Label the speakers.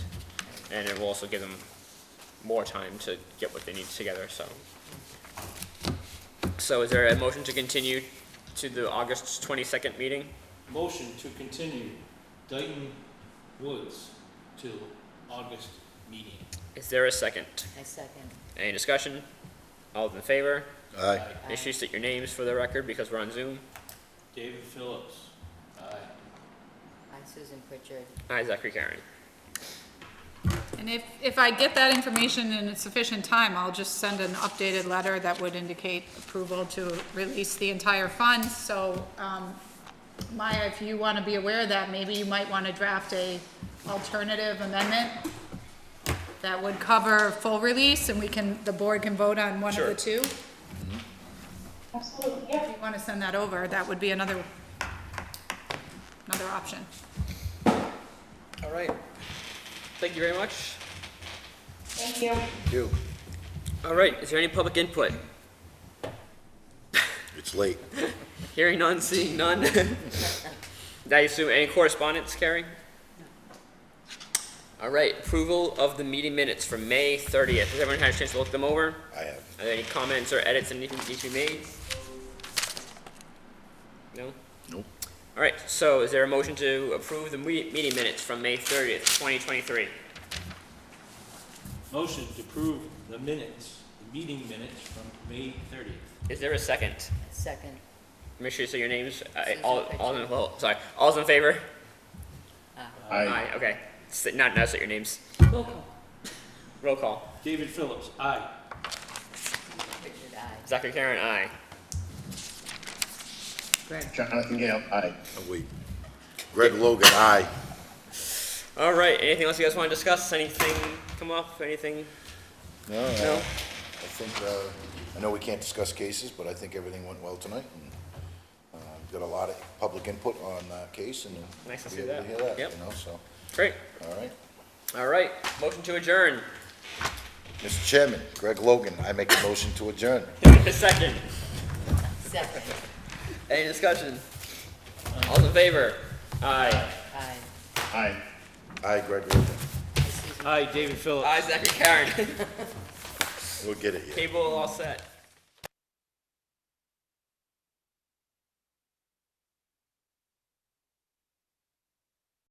Speaker 1: and it will also give them more time to get what they need together, so. So is there a motion to continue to the August twenty-second meeting?
Speaker 2: Motion to continue Dayton Woods to August meeting.
Speaker 1: Is there a second?
Speaker 3: I second.
Speaker 1: Any discussion? All in favor?
Speaker 4: Aye.
Speaker 2: Aye.
Speaker 3: Aye.
Speaker 1: Make sure you state your names for the record because we're on Zoom.
Speaker 2: David Phillips. Aye.
Speaker 3: Aye, Susan Pritchard.
Speaker 1: Aye, Zachary Karen.
Speaker 5: And if, if I get that information in sufficient time, I'll just send an updated letter that would indicate approval to release the entire fund. So, um, Maya, if you want to be aware of that, maybe you might want to draft a alternative amendment that would cover full release and we can, the board can vote on one of the two.
Speaker 6: Absolutely,
Speaker 5: If
Speaker 6: yep.
Speaker 5: you want to send that over, that would be another, another option.
Speaker 1: All right. Thank you very much.
Speaker 6: Thank you.
Speaker 4: You.
Speaker 1: All right, is there any public input?
Speaker 4: It's late.
Speaker 1: Hearing none, seeing none. I assume any correspondence, Carrie? All right, approval of the meeting minutes from May thirtieth. Has everyone had a chance to look them over?
Speaker 4: I have.
Speaker 1: Are there any comments or edits that need to need to be made? No?
Speaker 4: Nope.
Speaker 1: All right, so is there a motion to approve the me- meeting minutes from May thirtieth, twenty twenty-three?
Speaker 2: Motion to approve the minutes, the meeting minutes from May thirtieth.
Speaker 1: Is there a second?
Speaker 3: Second.
Speaker 1: Make sure you say your names, I,
Speaker 3: Susan
Speaker 1: all, all, in- well, sorry, all's in favor? Aye, okay. Sit, not, not say your names.
Speaker 3: Roll call.
Speaker 1: Roll call.
Speaker 2: David Phillips, aye.
Speaker 3: Pritchard, aye.
Speaker 1: Zachary Karen, aye.
Speaker 7: Jonathan Gale, aye.
Speaker 4: Oh, wait. Greg Logan, aye.
Speaker 1: All right, anything else you guys want to discuss? Anything come up? Anything?
Speaker 4: No, I
Speaker 1: No?
Speaker 4: I think, uh, I know we can't discuss cases, but I think everything went well tonight. and, uh, we've Got a lot of public input on that case and.
Speaker 1: Nice to
Speaker 4: we
Speaker 1: see
Speaker 4: able
Speaker 1: that.
Speaker 4: hear that, you
Speaker 1: Yep.
Speaker 4: know, so,
Speaker 1: Great.
Speaker 4: all right.
Speaker 1: All right, motion to adjourn.
Speaker 4: Mr. Chairman, Greg Logan, I make a motion to adjourn.
Speaker 1: A second.
Speaker 3: Second,
Speaker 1: Any discussion? All's in favor? Aye.
Speaker 3: aye.
Speaker 7: Aye.
Speaker 4: Aye, Greg Logan.
Speaker 2: Aye, David Phillips.
Speaker 1: Aye, Zachary Karen.
Speaker 4: We'll get it, yeah.
Speaker 1: Cable all set.